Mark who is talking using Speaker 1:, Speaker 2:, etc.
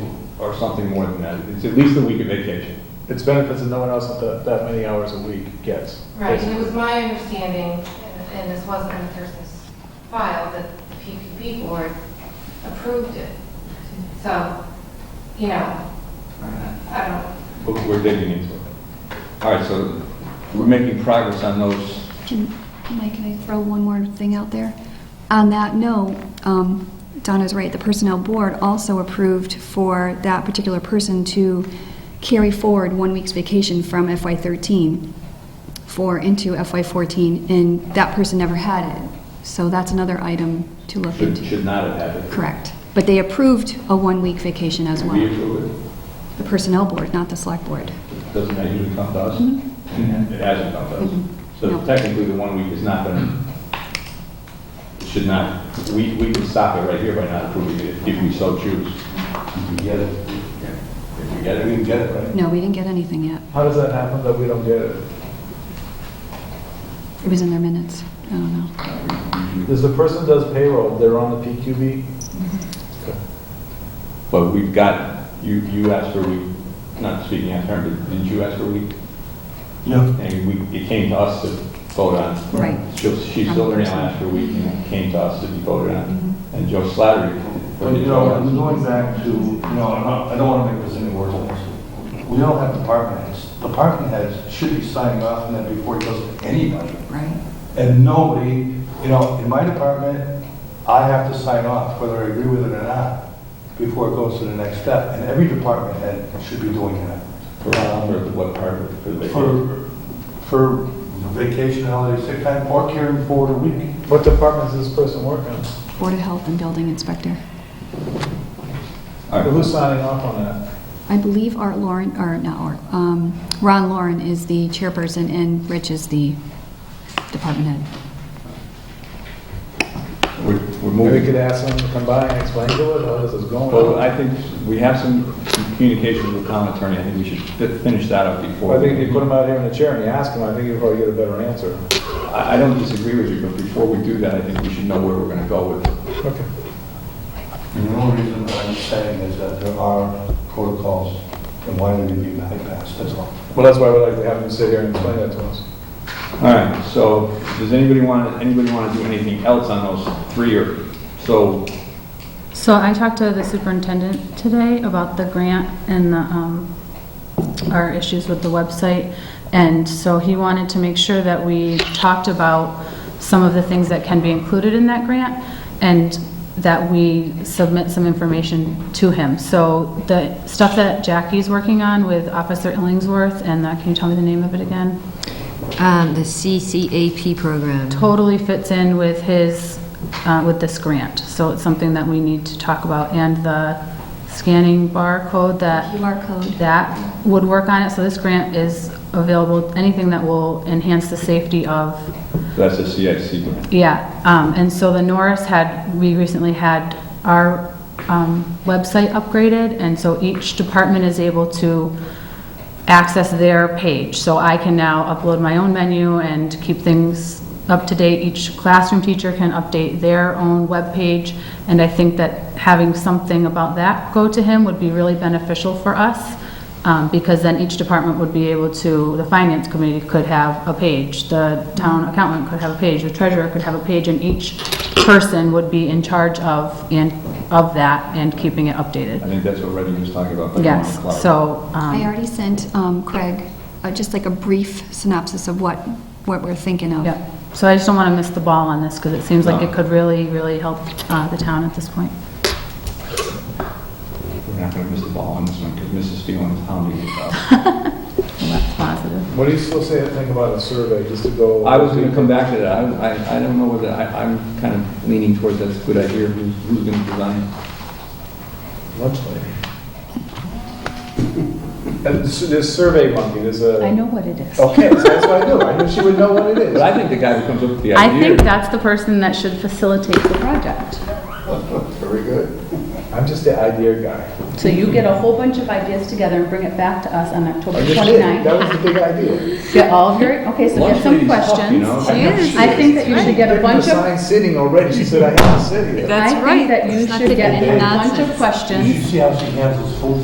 Speaker 1: or something more than that. It's at least a week of vacation.
Speaker 2: It's benefits that no one else at that, that many hours a week gets.
Speaker 3: Right, and it was my understanding, and- and this wasn't in the person's file, that the PPP board approved it. So, you know, I don't,
Speaker 1: But We're digging into it. All right, so we're making progress on those.
Speaker 4: Can, Mike, can I throw one more thing out there? On that note, um, Donna's right, the Personnel Board also approved for that particular person to carry forward one week's vacation from FY13 for into FY14, and that person never had it. So that's another item to look
Speaker 1: Should,
Speaker 4: into.
Speaker 1: should not have happened.
Speaker 4: Correct. But they approved a one-week vacation as
Speaker 1: We
Speaker 4: well.
Speaker 1: approve
Speaker 4: The Personnel Board, not the Select Board.
Speaker 1: it. Doesn't that usually come to us? It hasn't come to
Speaker 4: Mhm.
Speaker 1: us. So
Speaker 4: Mm-hmm. No.
Speaker 1: technically, the one week is not going to, should not, we, we can stop it right here by not approving it if we so choose. If we get it, we get it. if we get it, we can get it, right?
Speaker 4: No, we didn't get anything yet.
Speaker 2: How does that happen that we don't get it?
Speaker 4: It was in their minutes. I don't know.
Speaker 2: Is the person does payroll, they're on the PQB?
Speaker 1: But we've got, you, you asked for a week, not speaking out of turn, but didn't you ask for a week?
Speaker 5: Yeah.
Speaker 1: And we, it came to us to vote on.
Speaker 4: Right.
Speaker 1: She, she still there now after a week and it came to us to be voted on. And Joe Slattery.
Speaker 5: But you know, I'm going back to, you know, I'm not- I don't want to make this any worse than this. We don't have department heads. Department heads should be signing off on that before it goes to anybody.
Speaker 4: Right.
Speaker 5: And nobody, you know, in my department, I have to sign off whether I agree with it or not before it goes to the next step. And every department head should be doing that.
Speaker 1: For, for what part, for the vacation?
Speaker 5: For, for vacation, holiday, sick time, or carrying forward a week.
Speaker 2: What department does this person work in?
Speaker 4: Board of Health and Building Inspector.
Speaker 1: All right,
Speaker 2: Who's signing off on that?
Speaker 4: I believe Art Lauren, or not Art, um, Ron Lauren is the chairperson and Rich is the department head.
Speaker 1: we're, we're
Speaker 2: Maybe we
Speaker 1: moving.
Speaker 2: could ask them to come by and explain to us how this is
Speaker 1: Well,
Speaker 2: going.
Speaker 1: I think we have some some communication with the town attorney. I think we should fi- finish that up before.
Speaker 2: I think if you put them out here in a chair and you ask them, I think you'll probably get a better answer.
Speaker 1: I, I don't disagree with you, but before we do that, I think we should know where we're gonna go with it.
Speaker 2: Okay.
Speaker 5: And the only reason I'm saying is that there are protocols and why they're being bypassed, that's all.
Speaker 2: Well, that's why we'd like to have them sit here and explain that to us.
Speaker 1: All right, so does anybody want, anybody want to do anything else on those three or, so,
Speaker 6: So I talked to the superintendent today about the grant and the, um, our issues with the website. And so he wanted to make sure that we talked about some of the things that can be included in that grant and that we submit some information to him. So the stuff that Jackie's working on with Officer Illingsworth and that, can you tell me the name of it again?
Speaker 7: Um, The CCAP program.
Speaker 4: Mm-hmm.
Speaker 6: totally fits in with his, uh, with this grant. So it's something that we need to talk about. And the scanning barcode that,
Speaker 4: QR code.
Speaker 6: that would work on it. So this grant is available, anything that will enhance the safety of,
Speaker 1: that's a CIC grant.
Speaker 6: yeah. Um, And so the Norris had, we recently had our um, website upgraded, and so each department is able to access their page. So I can now upload my own menu and keep things up to date. Each classroom teacher can update their own webpage, and I think that having something about that go to him would be really beneficial for us, um, because then each department would be able to, the finance committee could have a page, the town accountant could have a page, the treasurer could have a page, and each person would be in charge of, and, of that, and keeping it
Speaker 1: I
Speaker 6: updated.
Speaker 1: think that's what Reggie was talking about. by
Speaker 6: Yes,
Speaker 1: Mark Clark.
Speaker 6: so. um,
Speaker 4: I already sent um, Craig uh, just like a brief synopsis of what, what we're thinking of.
Speaker 6: Yeah, so I just don't want to miss the ball on this, because it seems like
Speaker 1: No.
Speaker 6: it could really, really help uh, the town at this point.
Speaker 1: We're not gonna miss the ball on this one, because Mrs. Phelan is hounding us out.
Speaker 6: So That's positive.
Speaker 2: What do you still say, think about a survey, just to go?
Speaker 1: I was gonna come back to that, I, I, I don't know whether, I, I'm kind of leaning towards that's a good idea, who's, who's gonna design it?
Speaker 2: Lunch lady. And this, this uh, survey monkey, there's a.
Speaker 6: I know what it is.
Speaker 2: Okay, so that's what I knew, I knew she would know what it is.
Speaker 1: But I think the guy who comes up with the
Speaker 6: I
Speaker 1: idea.
Speaker 6: think that's the person that should facilitate the project.
Speaker 5: Very good.
Speaker 2: I'm just the idea guy.
Speaker 6: So you get a whole bunch of ideas together and bring it back to us on October
Speaker 2: I just did, that was the big idea.
Speaker 6: Get all of your, okay, so get
Speaker 1: Lunch
Speaker 6: some
Speaker 1: lady's tough, you
Speaker 6: questions.
Speaker 1: know?
Speaker 6: I think that you should get a bunch
Speaker 2: There's
Speaker 6: of,
Speaker 2: sign sitting already, she said I have to sit here.
Speaker 7: That's
Speaker 6: I
Speaker 7: right.
Speaker 6: think that you
Speaker 7: It's not
Speaker 6: should get
Speaker 7: taking
Speaker 6: a bunch of
Speaker 7: nonsense.
Speaker 5: You should
Speaker 6: questions
Speaker 5: see how she handles food